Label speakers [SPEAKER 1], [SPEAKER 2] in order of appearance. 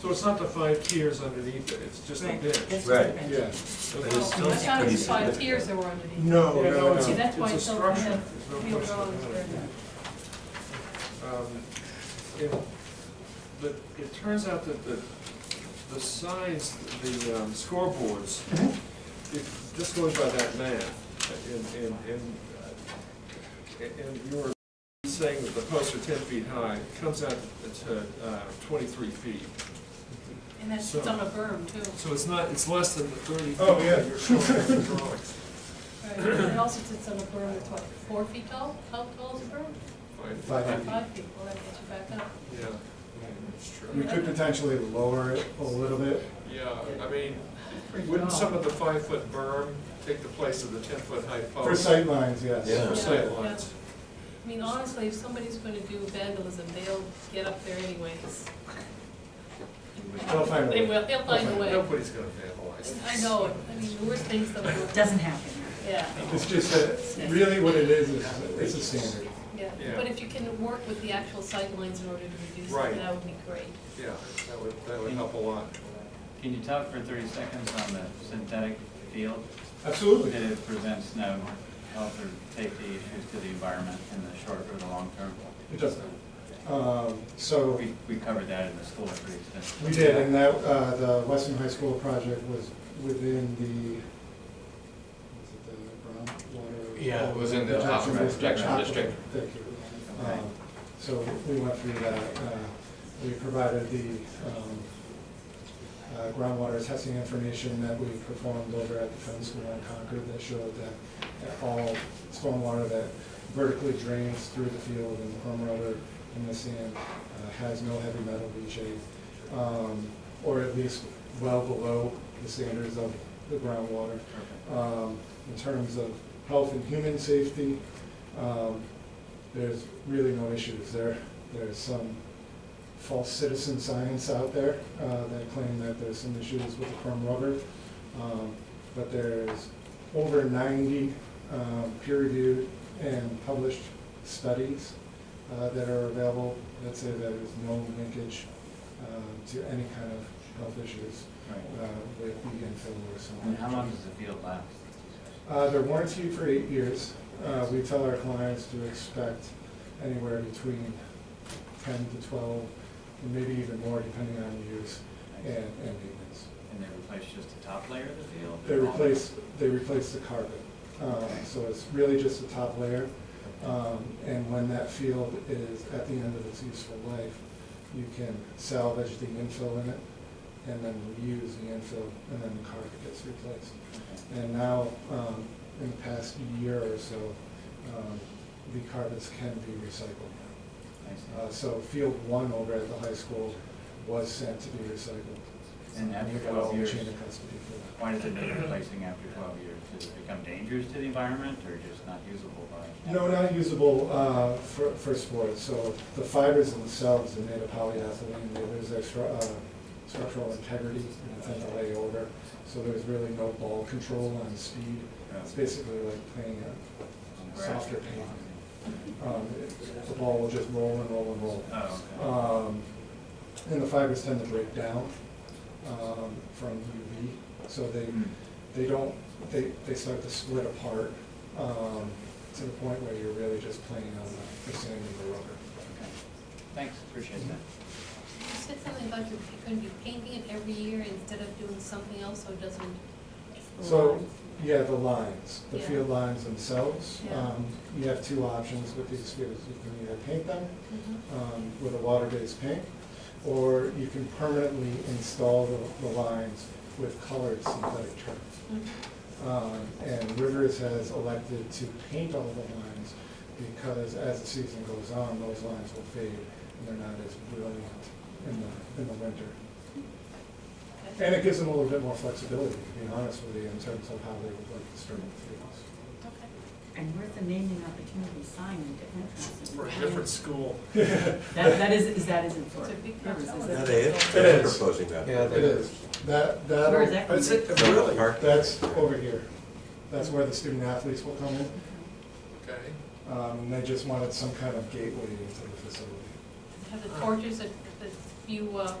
[SPEAKER 1] So it's not the five tiers underneath it, it's just a
[SPEAKER 2] Right.
[SPEAKER 1] bench.
[SPEAKER 2] That's just
[SPEAKER 3] Right.
[SPEAKER 2] a bench.
[SPEAKER 1] Yeah.
[SPEAKER 3] But it's still
[SPEAKER 4] That's not
[SPEAKER 3] pretty
[SPEAKER 4] just five
[SPEAKER 3] significant.
[SPEAKER 4] tiers that were underneath.
[SPEAKER 1] Yeah,
[SPEAKER 5] No,
[SPEAKER 1] no,
[SPEAKER 5] no,
[SPEAKER 1] it's-
[SPEAKER 4] See,
[SPEAKER 5] no.
[SPEAKER 4] that's why
[SPEAKER 1] a
[SPEAKER 4] it's so
[SPEAKER 1] structure.
[SPEAKER 4] kind of
[SPEAKER 1] There's no
[SPEAKER 4] wheeled
[SPEAKER 1] question
[SPEAKER 4] roads
[SPEAKER 1] about it. Um, it- But it turns out that the, the signs, the um, scoreboards, if, just going by that math, and, and, and, uh, and- and you were saying that the posts are ten feet high, it comes out to uh, twenty-three feet.
[SPEAKER 4] And that's it's on a berm too.
[SPEAKER 1] So it's not, it's less than the thirty. feet
[SPEAKER 5] Oh, yeah.
[SPEAKER 1] that You're showing on the drawings.
[SPEAKER 4] Right. And it also sits on a berm that's what, four feet tall? How tall is a berm?
[SPEAKER 1] Fine.
[SPEAKER 5] Five feet.
[SPEAKER 4] Five feet, well, that gets you back up.
[SPEAKER 1] Yeah, that's
[SPEAKER 5] We
[SPEAKER 1] true.
[SPEAKER 5] could potentially lower it a little bit.
[SPEAKER 1] Yeah, I mean, wouldn't some of the five-foot berm take the place of the ten-foot high post?
[SPEAKER 6] Oh.
[SPEAKER 5] For sightlines, yes.
[SPEAKER 3] Yeah.
[SPEAKER 1] For
[SPEAKER 4] Yeah.
[SPEAKER 1] sightlines.
[SPEAKER 4] I mean, honestly, if somebody's gonna do vandalism, they'll get up there anyways.
[SPEAKER 5] They'll find a
[SPEAKER 4] They
[SPEAKER 5] way.
[SPEAKER 4] will, they'll find a way.
[SPEAKER 1] Nobody's gonna vandalize.
[SPEAKER 4] I know it, I mean, the worst things that will.
[SPEAKER 2] Doesn't happen.
[SPEAKER 4] Yeah,
[SPEAKER 5] It's just that, really what it is, is it's a standard.
[SPEAKER 4] yeah.
[SPEAKER 1] Yeah.
[SPEAKER 4] But if you can work with the actual sightlines in order to reduce
[SPEAKER 1] Right.
[SPEAKER 4] it, that would be great.
[SPEAKER 1] Yeah, that would, that would help a lot.
[SPEAKER 7] Can you talk for thirty seconds on the synthetic field? That
[SPEAKER 5] Absolutely.
[SPEAKER 7] it presents no health or safety issues to the environment in the short or the long term? Uh,
[SPEAKER 5] It doesn't. Um, So
[SPEAKER 7] We, we covered that in the school pretty extensively.
[SPEAKER 5] we did, and that, uh, the Western High School project was within the, was it the groundwater?
[SPEAKER 6] Yeah, it was in the
[SPEAKER 5] Protection
[SPEAKER 6] aquifer
[SPEAKER 5] district.
[SPEAKER 6] protection district.
[SPEAKER 5] Thank you. Um, So we went through that. uh, We provided the um, uh, groundwater testing information that we performed over at the film school in Concord that showed that all stormwater that vertically drains through the field and homeowner in the sand uh, has no heavy metal leachate, um, or at least well below the standards of the groundwater um, in terms of health and human safety. um, There's really no issues there. There's some false citizen science out there uh, that claim that there's some issues with the chrome rubber. Um, But there's over 90 um, peer-reviewed and published studies uh, that are available that say that there's no linkage uh, to any kind of health issues
[SPEAKER 7] Right.
[SPEAKER 5] uh, with the infill or something.
[SPEAKER 7] And how long does the field last?
[SPEAKER 5] Uh, They're warranted for eight years. Uh, We tell our clients to expect anywhere between 10 to 12, and maybe even more depending on use and
[SPEAKER 7] And
[SPEAKER 5] and maintenance.
[SPEAKER 7] they replace just the top layer of the field?
[SPEAKER 5] They
[SPEAKER 7] or all of it?
[SPEAKER 5] replace, they replace the carpet. Um, So it's really just the top layer. Um, And when that field is at the end of its useful life, you can salvage the infill in it and then reuse the infill, and then the carpet gets replaced.
[SPEAKER 7] Okay.
[SPEAKER 5] And now, um, in the past year or so, um, the carpets can be recycled. Uh,
[SPEAKER 7] I see.
[SPEAKER 5] So field one over at the high school was sent to be recycled.
[SPEAKER 7] And after
[SPEAKER 5] We got
[SPEAKER 7] twelve
[SPEAKER 5] all the
[SPEAKER 7] years,
[SPEAKER 5] Chain of custody for
[SPEAKER 7] why does it need replacing after twelve years? Does it become dangerous to the environment or just not usable by?
[SPEAKER 5] that. No, not usable uh, for for sports. So the fibers themselves are made of polyethylene. They lose their stru- uh, structural integrity and tend to lay over. So there's really no ball control on speed. It's basically like playing a softer paint. um, it- the ball will just roll and roll and roll.
[SPEAKER 7] Oh, okay.
[SPEAKER 5] Um, and the fibers tend to break down, um, from UV, so they,
[SPEAKER 7] Hmm.
[SPEAKER 5] they don't, they, they start to split apart, um, to the point where you're really just playing on the, the sand and the rubber.
[SPEAKER 7] Okay. Thanks, appreciate that.
[SPEAKER 4] You said something about you're gonna be painting it every year instead of doing something else, so it doesn't.
[SPEAKER 5] So, yeah, the lines, the
[SPEAKER 4] Yeah.
[SPEAKER 5] field lines themselves,
[SPEAKER 4] Yeah.
[SPEAKER 5] um, you have two options with these fields, you can either paint them,
[SPEAKER 4] Mhm.
[SPEAKER 5] um, with a water-based paint, or you can permanently install the, the lines with colored synthetic turf.
[SPEAKER 4] Mhm.
[SPEAKER 5] Um, and Rivers has elected to paint all the lines because as the season goes on, those lines will fade and they're not as brilliant in the, in the winter.
[SPEAKER 4] Okay.
[SPEAKER 5] And it gives them a little bit more flexibility, to be honest with you, in terms of how they would like to start the fields.
[SPEAKER 4] Okay.
[SPEAKER 2] And where's the naming opportunity sign in different places?
[SPEAKER 1] For a different school.
[SPEAKER 2] That, that is, is that isn't for.
[SPEAKER 4] It's a big
[SPEAKER 2] Rivers, is
[SPEAKER 4] number.
[SPEAKER 2] it?
[SPEAKER 3] Yeah, they,
[SPEAKER 5] It
[SPEAKER 3] they're
[SPEAKER 5] is.
[SPEAKER 3] proposing that.
[SPEAKER 6] Yeah,
[SPEAKER 5] It is, that, that.
[SPEAKER 2] Where is that?
[SPEAKER 1] But it's it-
[SPEAKER 3] So the
[SPEAKER 1] really?
[SPEAKER 3] park-
[SPEAKER 5] That's over here. That's where the student athletes will come in.
[SPEAKER 1] Okay.
[SPEAKER 5] Um, and they just wanted some kind of gateway into the facility.
[SPEAKER 4] Have the torches that, that you, uh,